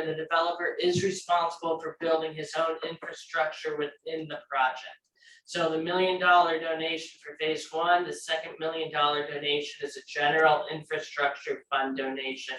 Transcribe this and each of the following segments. and the developer is responsible for building his own infrastructure within the project. So the million dollar donation for phase one, the second million dollar donation is a general infrastructure fund donation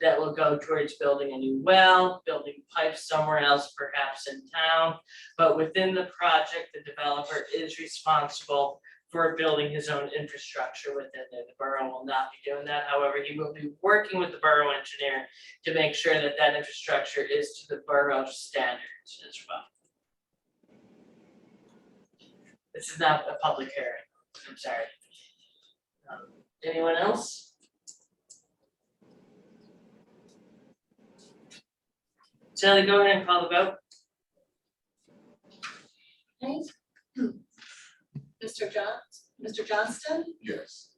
that will go towards building a new well, building pipes somewhere else, perhaps in town. But within the project, the developer is responsible for building his own infrastructure within it. The borough will not be doing that. However, he will be working with the borough engineer to make sure that that infrastructure is to the borough standards as well. This is not a public hearing, I'm sorry. Um, Anyone else? Sally, go ahead and call the vote. Mr. Johns, Mr. Johnston, Yes.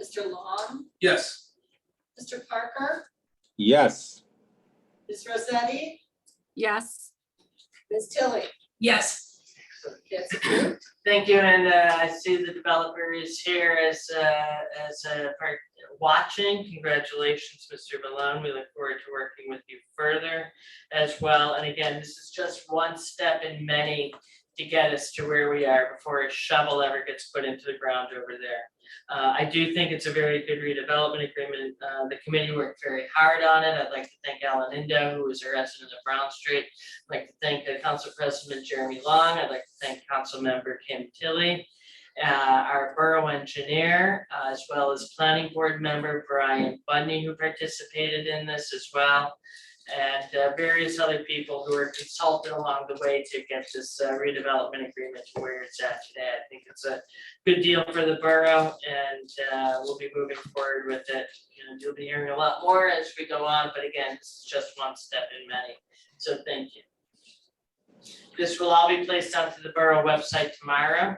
Mr. Long, Yes. Mr. Parker, Yes. Ms. Rosetti, Yes. Ms. Tilly. Yes. That's approved. Thank you, and uh, I see the developer is here as uh, as a part watching. Congratulations, Mr. Malone. We look forward to working with you further as well. And again, this is just one step in many to get us to where we are before a shovel ever gets put into the ground over there. Uh, I do think it's a very good redevelopment agreement. Uh, The committee worked very hard on it. I'd like to thank Alan Indo, who is a resident of Brown Street. I'd like to thank uh, Council President Jeremy Long. I'd like to thank Council Member Kim Tilly, uh, our Borough Engineer, uh, as well as Planning Board Member Brian Bundy, who participated in this as well, and uh, various other people who were consulted along the way to get this uh, redevelopment agreement to where it's at today. I think it's a good deal for the borough, and uh, we'll be moving forward with it. You know, You'll be hearing a lot more as we go on, but again, this is just one step in many, so thank you. This will all be placed onto the Borough website tomorrow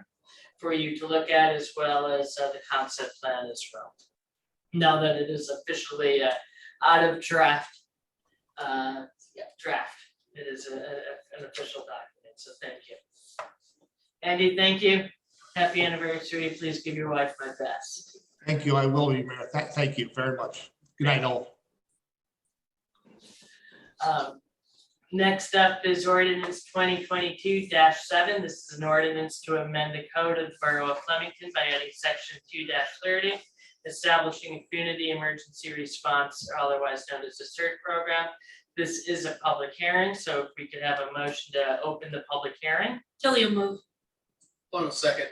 for you to look at as well as uh, the concept plan as well. Now that it is officially uh, out of draft, uh, yeah, draft, it is a- a- a- an official document, so thank you. Andy, thank you. Happy anniversary. Please give your wife my best. Thank you. I will be, Mayor. Tha- Thank you very much. Good night, all. Um, Next up is ordinance twenty twenty-two seven. This is an ordinance to amend the code of the Borough of Flemington by adding section two thirty, establishing a community emergency response, or otherwise known as the CERT program. This is a public hearing, so if we could have a motion to open the public hearing. Tilly will move. Hold on a second.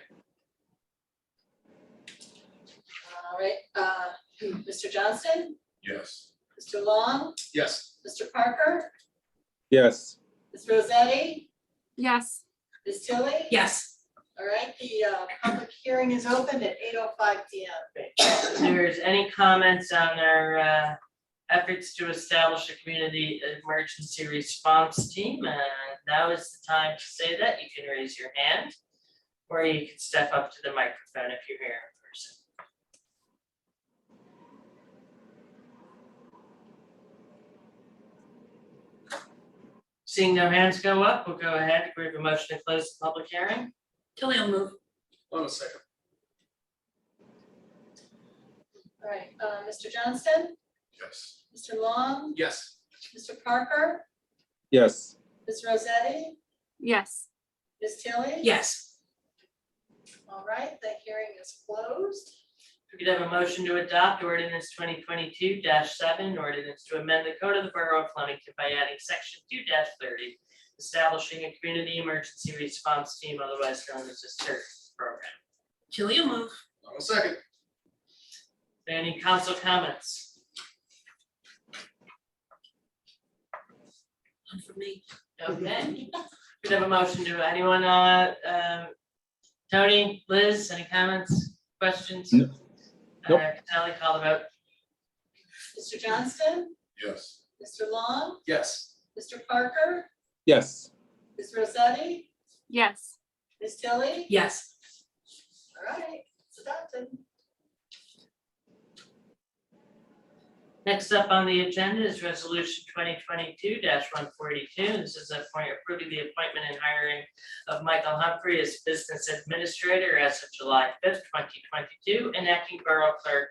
All right, uh, Mr. Johnston, Yes. Mr. Long, Yes. Mr. Parker, Yes. Ms. Rosetti, Yes. Ms. Tilly. Yes. All right, the uh, public hearing is open at 8:05 PM. If there's any comments on our uh, efforts to establish a community emergency response team, uh, now is the time to say that. You can raise your hand. Or you can step up to the microphone if you're here in person. Seeing no hands go up, we'll go ahead. We have a motion to close the public hearing. Tilly will move. Hold on a second. All right, uh, Mr. Johnston, Yes. Mr. Long, Yes. Mr. Parker, Yes. Ms. Rosetti, Yes. Ms. Tilly. Yes. All right, the hearing is closed. We could have a motion to adopt ordinance twenty twenty-two seven, ordinance to amend the code of the borough of Flemington by adding section two thirty, establishing a community emergency response team, otherwise known as a CERT program. Tilly will move. Hold on a second. Any council comments? One for me. Okay. Could have a motion to anyone, uh, uh, Tony, Liz, any comments, questions? No. Nope. Uh, Sally, call the vote. Mr. Johnston, Yes. Mr. Long, Yes. Mr. Parker, Yes. Ms. Rosetti, Yes. Ms. Tilly. Yes. All right, it's adopted. Next up on the agenda is resolution twenty twenty-two one forty-two. This is a point approving the appointment and hiring of Michael Humphrey as business administrator as of July fifth, twenty twenty-two, and acting borough clerk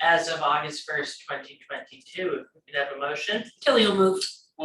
as of August first, twenty twenty-two. If we could have a motion, Tilly will move.